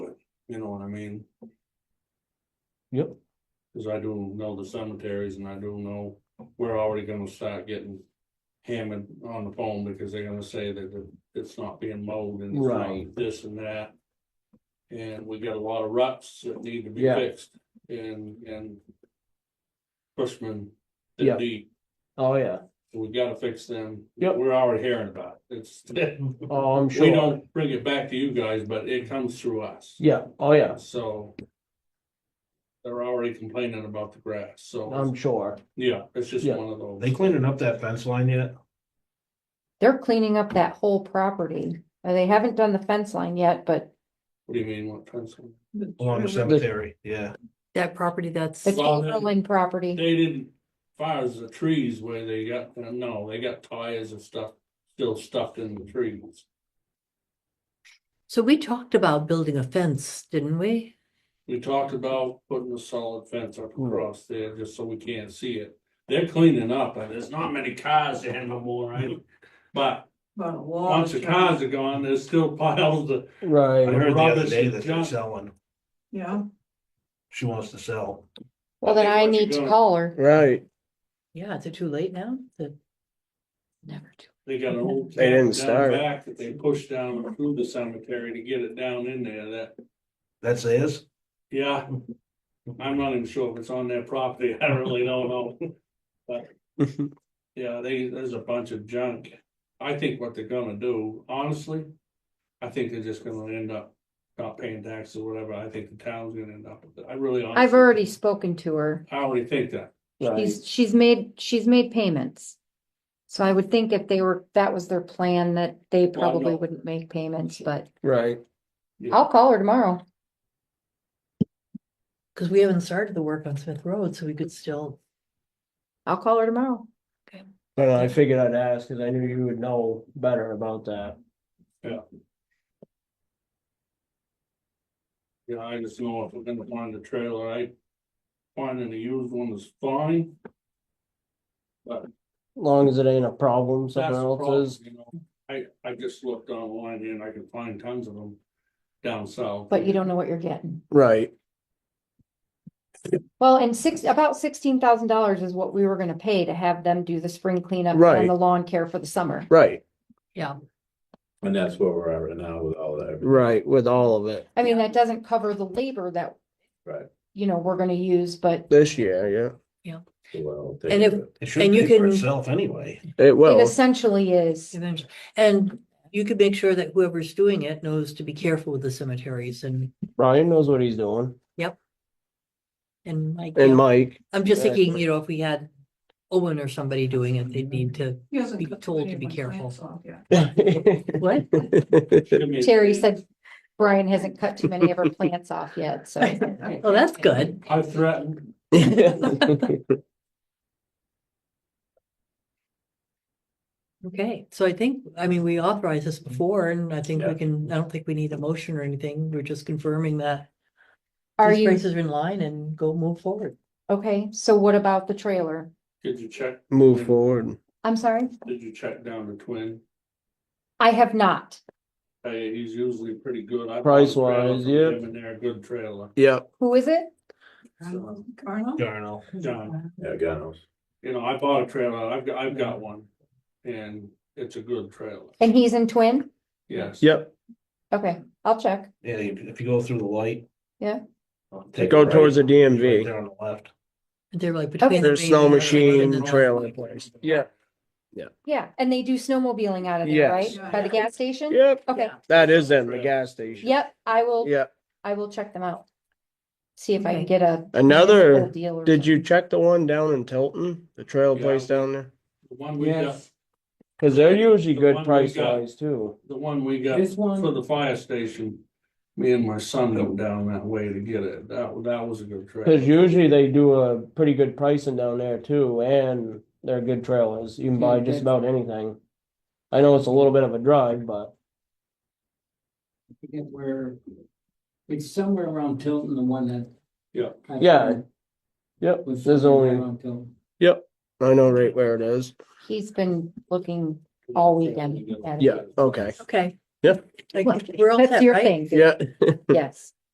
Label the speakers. Speaker 1: You know what I mean?
Speaker 2: Yep.
Speaker 1: Cause I do know the cemeteries and I do know we're already gonna start getting hammered on the phone because they're gonna say that it- it's not being mowed and it's not
Speaker 2: Right.
Speaker 1: this and that. And we got a lot of ruts that need to be
Speaker 2: Yeah.
Speaker 1: fixed and, and Bushman,
Speaker 2: Yeah.
Speaker 1: the deep,
Speaker 2: Oh, yeah.
Speaker 1: we gotta fix them.
Speaker 2: Yep.
Speaker 1: We're already hearing about it. It's,
Speaker 2: Oh, I'm sure.
Speaker 1: we don't bring it back to you guys, but it comes through us.
Speaker 2: Yeah. Oh, yeah.
Speaker 1: So. They're already complaining about the grass, so,
Speaker 2: I'm sure.
Speaker 1: yeah, it's just
Speaker 2: Yeah.
Speaker 1: one of those.
Speaker 3: Um, They cleaning up that fence line yet?
Speaker 4: They're cleaning up that whole property. Uh, They haven't done the fence line yet, but
Speaker 1: What do you mean, what pencil?
Speaker 3: Along Oh, the cemetery, yeah.
Speaker 5: That property that's,
Speaker 4: the
Speaker 1: Well, then-
Speaker 4: Chamberlain property.
Speaker 1: They didn't, fire the trees where they got, no, they got tires and stuff, still stuffed in the trees.
Speaker 5: so we talked about building a fence, didn't we?
Speaker 1: We talked about putting a solid fence up
Speaker 3: Hmm.
Speaker 1: across there, just so we can't see it. They're cleaning up, and there's not many cars there no more, right? But once the cars are gone, there's still piles of
Speaker 3: I
Speaker 2: Right.
Speaker 3: heard the other
Speaker 1: Robinson
Speaker 3: day that they're
Speaker 1: John-
Speaker 3: selling.
Speaker 6: Yeah,
Speaker 3: She wants to sell.
Speaker 4: Well, then I
Speaker 1: What you
Speaker 4: need to
Speaker 1: gonna-
Speaker 4: call her.
Speaker 2: Right.
Speaker 5: Yeah, is it too late now? The- Never too.
Speaker 1: They got an old.
Speaker 2: They didn't
Speaker 1: down
Speaker 2: start.
Speaker 1: Back that they pushed down through the cemetery to get it down in there, that,
Speaker 3: That's his?
Speaker 1: yeah. I'm not even sure if it's on their property, I really don't know, yeah, they, there's a bunch of junk. I think what they're gonna do, honestly, I think they're just gonna end up not paying taxes or whatever, I think the town's gonna end up with it, I really.
Speaker 4: I've
Speaker 1: honestly-
Speaker 4: already spoken to her.
Speaker 1: I already think that,
Speaker 2: Right.
Speaker 4: She's, she's made, she's made payments. So I would think if they were, that was their plan, that they
Speaker 1: Well, I
Speaker 4: probably
Speaker 1: know.
Speaker 4: wouldn't make payments, but
Speaker 2: Right.
Speaker 4: I'll call her tomorrow.
Speaker 5: Because we haven't started the work on Smith Road, so we could still,
Speaker 4: I'll call her tomorrow.
Speaker 2: But I figured I'd ask because I knew you would know better about that.
Speaker 1: you know, I just know if we're gonna find a trailer, I. Finding a used one is fine,
Speaker 2: As long as it ain't a problem, someone
Speaker 1: That's the problem,
Speaker 2: else's.
Speaker 1: you know. I, I just looked online and I could find tons of them down south.
Speaker 4: But you don't know what you're getting.
Speaker 2: Right.
Speaker 4: Well, and six, about sixteen thousand dollars is what we were gonna pay to have them do the spring cleanup
Speaker 2: Right.
Speaker 4: and the lawn care for the summer.
Speaker 2: Right.
Speaker 5: yeah,
Speaker 7: And that's where we're at right now with all that.
Speaker 2: Right. With all of it
Speaker 4: I mean, that doesn't cover the labor that.
Speaker 7: Right.
Speaker 4: You know, we're gonna use, but
Speaker 2: this year.
Speaker 7: Well,
Speaker 5: And if-
Speaker 3: It should
Speaker 5: And you
Speaker 3: pay for
Speaker 5: can-
Speaker 3: itself anyway.
Speaker 2: Yeah. It
Speaker 4: it
Speaker 2: will.
Speaker 4: essentially is.
Speaker 5: eventually. And you could make sure that whoever's doing it knows to be careful with the cemeteries and,
Speaker 2: Ryan knows what he's doing.
Speaker 5: and Mike.
Speaker 2: And
Speaker 5: yeah.
Speaker 2: Mike.
Speaker 5: I'm just thinking,
Speaker 2: Exactly.
Speaker 5: you know, if we had Owen or somebody doing it, they'd need to,
Speaker 6: he hasn't.
Speaker 5: Be
Speaker 6: cut
Speaker 5: told to
Speaker 6: any of
Speaker 5: be
Speaker 6: my
Speaker 5: careful.
Speaker 6: plants off yet.
Speaker 5: what?
Speaker 1: Give me-
Speaker 4: Terry said Brian hasn't cut too many of her plants off yet, so.
Speaker 5: Well, that's good.
Speaker 1: I threatened,
Speaker 5: Okay, so I think, I mean, we authorized this before and I think we
Speaker 7: Yeah.
Speaker 5: can, I don't think we need a motion or anything. We're just confirming that
Speaker 4: Are
Speaker 5: these
Speaker 4: you,
Speaker 5: prices are in line and go move forward.
Speaker 4: okay, so what about the trailer?
Speaker 1: did you check,
Speaker 2: Move forward.
Speaker 4: I'm sorry,
Speaker 1: did you check down the twin?
Speaker 4: I have not.
Speaker 1: Hey, he's usually pretty good. I bought a trailer
Speaker 2: Price-wise,
Speaker 1: from
Speaker 2: yeah.
Speaker 1: him And they're a good trailer.
Speaker 2: Yep.
Speaker 4: Who is it?
Speaker 1: So,
Speaker 6: Carnal?
Speaker 3: Darnell.
Speaker 1: John,
Speaker 7: Yeah, Gano.
Speaker 1: you know, I bought a trailer, I've, got I've got one, and it's a good trailer,
Speaker 4: And he's in Twin?
Speaker 1: yes.
Speaker 2: Yep.
Speaker 4: Okay, I'll check.
Speaker 3: Yeah, if if you go through the light.
Speaker 4: Yeah.
Speaker 3: Take a
Speaker 2: Go
Speaker 3: right,
Speaker 2: towards the
Speaker 3: Right
Speaker 2: DMV.
Speaker 3: there on the left.
Speaker 5: They're like between. the
Speaker 2: There's
Speaker 5: main
Speaker 2: snow
Speaker 5: and the-
Speaker 2: machine,
Speaker 5: and the-
Speaker 2: trailer place. Yeah.
Speaker 4: Yeah, and they do snowmobiling out of there,
Speaker 2: Yes.
Speaker 4: right? By the gas station?
Speaker 2: Yep.
Speaker 4: Okay,
Speaker 2: That is in the gas station.
Speaker 4: yep, I will,
Speaker 2: Yep.
Speaker 4: I will check them out. See if I can
Speaker 5: Okay.
Speaker 4: get a.
Speaker 2: Another-
Speaker 4: deal or
Speaker 2: Did you
Speaker 4: something.
Speaker 2: check the one down in Tilton, the trail
Speaker 1: Yeah.
Speaker 2: place down there?
Speaker 1: The one we got,
Speaker 2: Yes. Cause they're usually
Speaker 1: The
Speaker 2: good
Speaker 1: one we
Speaker 2: price
Speaker 1: got.
Speaker 2: wise too.
Speaker 1: the one we got
Speaker 2: This one-
Speaker 1: for the fire station, me and my son go down that way to get it, that, that was a good trailer.
Speaker 2: Cause usually they do a pretty good pricing down there too, and they're good trailers. You can buy just about anything. I know it's a little bit of a drive, but
Speaker 8: forget where, it's somewhere around Tilton, the one that.
Speaker 1: Yeah.
Speaker 8: I-
Speaker 2: Yeah, yep,
Speaker 8: was
Speaker 2: there's
Speaker 8: somewhere
Speaker 2: only,
Speaker 8: around Tilton.
Speaker 2: I know right where it is.
Speaker 4: He's been looking all weekend. at it.
Speaker 2: Yeah, okay.
Speaker 5: Okay.
Speaker 2: Yeah.
Speaker 5: Like, We're all
Speaker 4: That's
Speaker 5: set,
Speaker 4: your thing,
Speaker 5: right?
Speaker 2: Yeah,
Speaker 4: yes.